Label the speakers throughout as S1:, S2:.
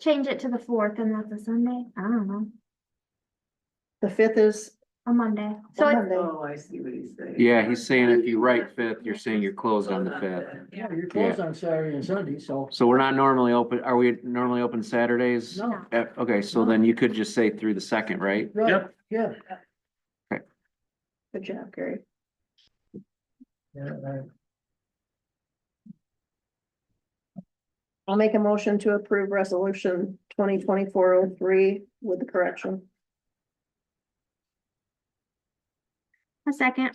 S1: change it to the fourth and that's a Sunday. I don't know,
S2: The fifth is
S1: a Monday. So it's,
S2: Monday.
S3: Oh, I see what he's saying.
S4: Yeah, he's saying if you write fifth, you're saying you're closed on the fifth.
S5: Yeah, you're closed on Saturday and Sunday, so.
S4: So we're not normally open, are we normally open Saturdays?
S5: No.
S4: Eh, Okay, so then you could just say through the second, right?
S5: right,
S6: Yep.
S5: Yeah.
S2: Good job, Gary.
S5: yeah, right.
S2: I'll make a motion to approve resolution twenty twenty-four oh three with the correction.
S1: a second.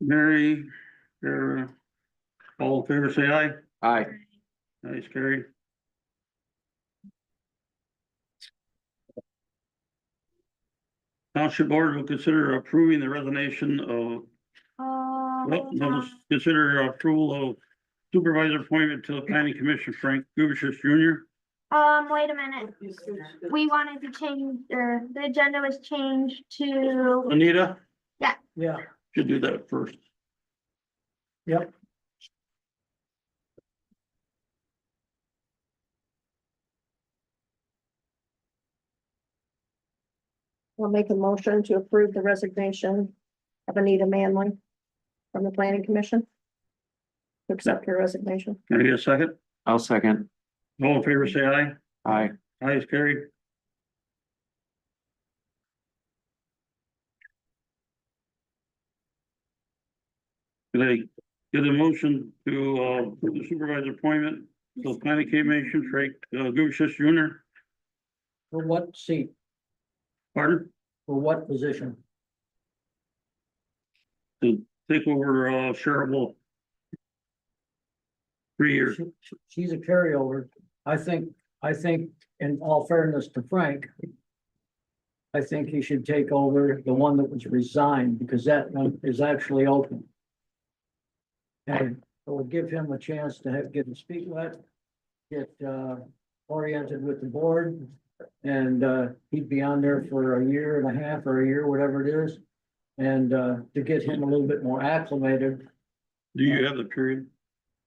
S6: Mary, Sarah, all in favor, say aye.
S4: Aye,
S6: Nice, Gary. Township Board will consider approving the resignation of, well,
S1: Uh,
S6: will consider approval of supervisor appointment to the planning commission, Frank Gubishus Jr.
S1: um, wait a minute. We wanted to change, or the agenda was changed to,
S6: Anita,
S5: Yeah,
S6: should do that first.
S5: yep.
S2: I'll make a motion to approve the resignation of Anita Manley from the planning commission. To accept her resignation.
S6: Can I get a second?
S4: I'll second.
S6: All in favor, say aye.
S4: Aye,
S6: Aye, is carried. Can I get a motion to, uh, approve the supervisor appointment, so planning commission, Frank, uh, Gubishis Jr.,
S5: For what seat,
S6: pardon,
S5: for what position?
S6: take over, uh, Cheryl Wolf. Three years,
S5: She- she- She's a carryover. I think, I think, in all fairness to Frank, I think he should take over the one that was resigned because that one is actually open. And it would give him a chance to have, get to speak with, get, uh, oriented with the board. And, uh, he'd be on there for a year and a half or a year, whatever it is. And, uh, to get him a little bit more acclimated,
S6: do you have the period,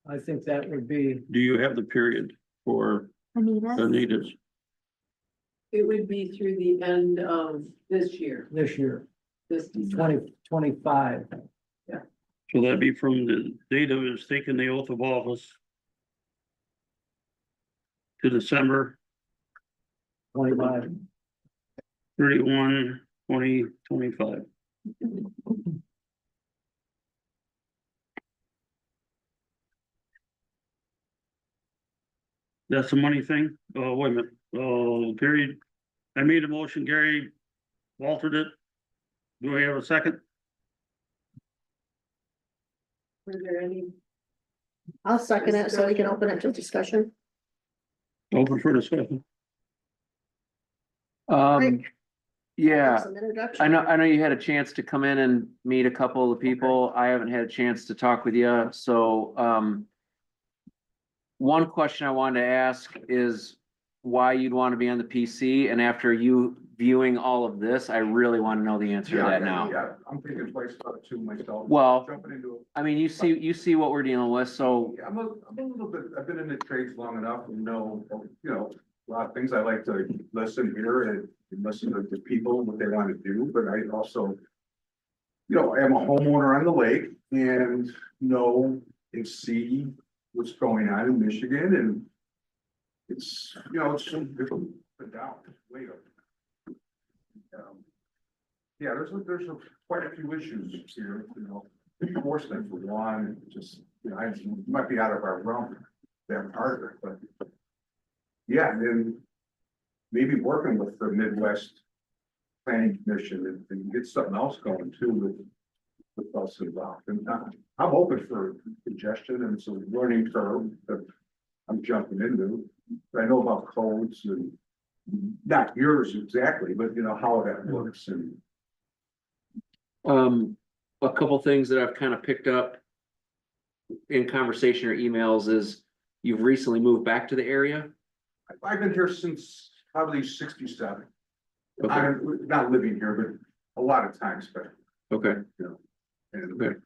S5: I think that would be
S6: do you have the period for
S1: Anita,
S6: Anita's?
S3: It would be through the end of this year,
S5: this year.
S3: this December.
S5: twenty twenty-five.
S6: So that'd be from the date of his taking the oath of office to December
S5: Twenty-five.
S6: thirty-one, twenty twenty-five. That's the money thing, oh, wait a minute, oh, Gary, I made a motion, Gary altered it. Do we have a second?
S3: Were there any?
S2: I'll second it so we can open it to discussion.
S6: Open for discussion.
S4: um, yeah,
S2: Some introduction.
S4: I know, I know you had a chance to come in and meet a couple of the people, I haven't had a chance to talk with you, so, um. One question I wanted to ask is why you'd want to be on the PC, and after you viewing all of this, I really want to know the answer to
S7: Yeah,
S4: that
S7: yeah,
S4: now.
S7: Yeah, I'm thinking twice about it too myself.
S4: Well,
S7: Jumping into, it.
S4: I mean, you see, you see what we're dealing with, so,
S7: Yeah, I'm a, I'm a little bit, I've been in the trades long enough and know, you know, a lot of things I like to listen here and listen to the people, and what they want to do, but I also. You know, I am a homeowner on the lake and know and see what's going on in Michigan and. It's, you know, it's different, but down, way up. Um, Yeah, there's, a- there's a- quite a few issues here, you know enforcement for one, it just, you know, I, it might be out of our realm, that part of it, but. Yeah, and then maybe working with the Midwest Planning Commission and, and get something else going too with, with us involved. And I'm, I'm open for suggestion and it's a learning curve that I'm jumping into. I know about codes and not yours exactly, but you know, how that works and
S4: um, a couple things that I've kind of picked up. In conversation or emails is you've recently moved back to the area.
S7: I- I've been here since probably sixty-seven.
S4: Okay,
S7: I'm not living here, but a lot of times, but
S4: okay,
S8: And
S7: Good.